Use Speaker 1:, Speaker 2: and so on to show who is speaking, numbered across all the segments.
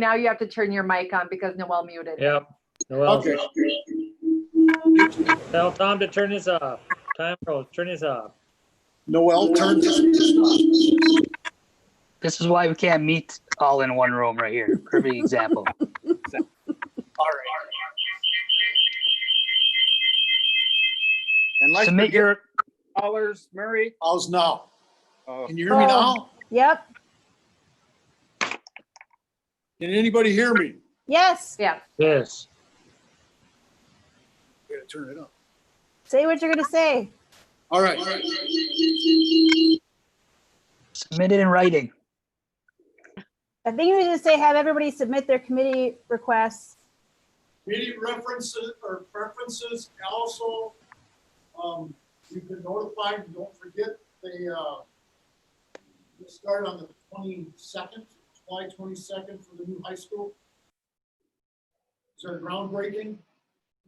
Speaker 1: Now you have to turn your mic on because Noel muted.
Speaker 2: Yep. Well,
Speaker 3: Okay,
Speaker 2: tell Tom to turn this off. Time goes, turn this off.
Speaker 3: Noel, turn,
Speaker 4: This is why we can't meet all in one room right here. Perfect example.
Speaker 3: and like
Speaker 4: Submit
Speaker 3: the
Speaker 4: your,
Speaker 5: dollars, Murray.
Speaker 3: house now.
Speaker 5: Oh.
Speaker 3: Can you hear me now?
Speaker 6: Yep,
Speaker 3: Can anybody hear me?
Speaker 6: yes.
Speaker 1: Yeah,
Speaker 2: Yes.
Speaker 3: Yeah, turn it up.
Speaker 6: Say what you're gonna say.
Speaker 3: All right,
Speaker 4: submit it in writing.
Speaker 6: I think you were gonna say have everybody submit their committee requests.
Speaker 7: Meeting references or preferences, also, um, you can notify, don't forget, they, uh, they start on the twenty-second, July twenty-second for the new high school. Is there groundbreaking?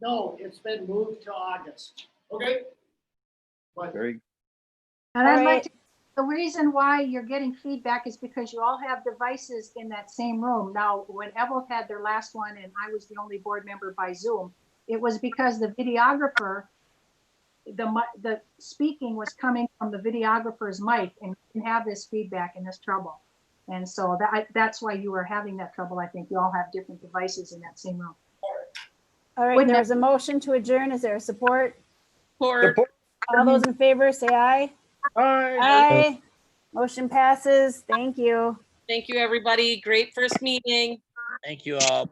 Speaker 7: No, it's been moved to August. Okay? But
Speaker 5: Very,
Speaker 8: And I'd like
Speaker 6: Alright.
Speaker 8: to, the reason why you're getting feedback is because you all have devices in that same room. Now, when Evelyn had their last one and I was the only board member by Zoom, it was because the videographer, the mi- the speaking was coming from the videographer's mic and we didn't have this feedback and this trouble. And so that, I- that's why you were having that trouble. I think you all have different devices in that same room.
Speaker 6: All right, there's a motion to adjourn. Is there a support?
Speaker 5: Support.
Speaker 6: All those in favor, say aye.
Speaker 5: Hi.
Speaker 6: Aye. Motion passes. Thank you.
Speaker 9: Thank you, everybody. Great first meeting.
Speaker 4: Thank you all.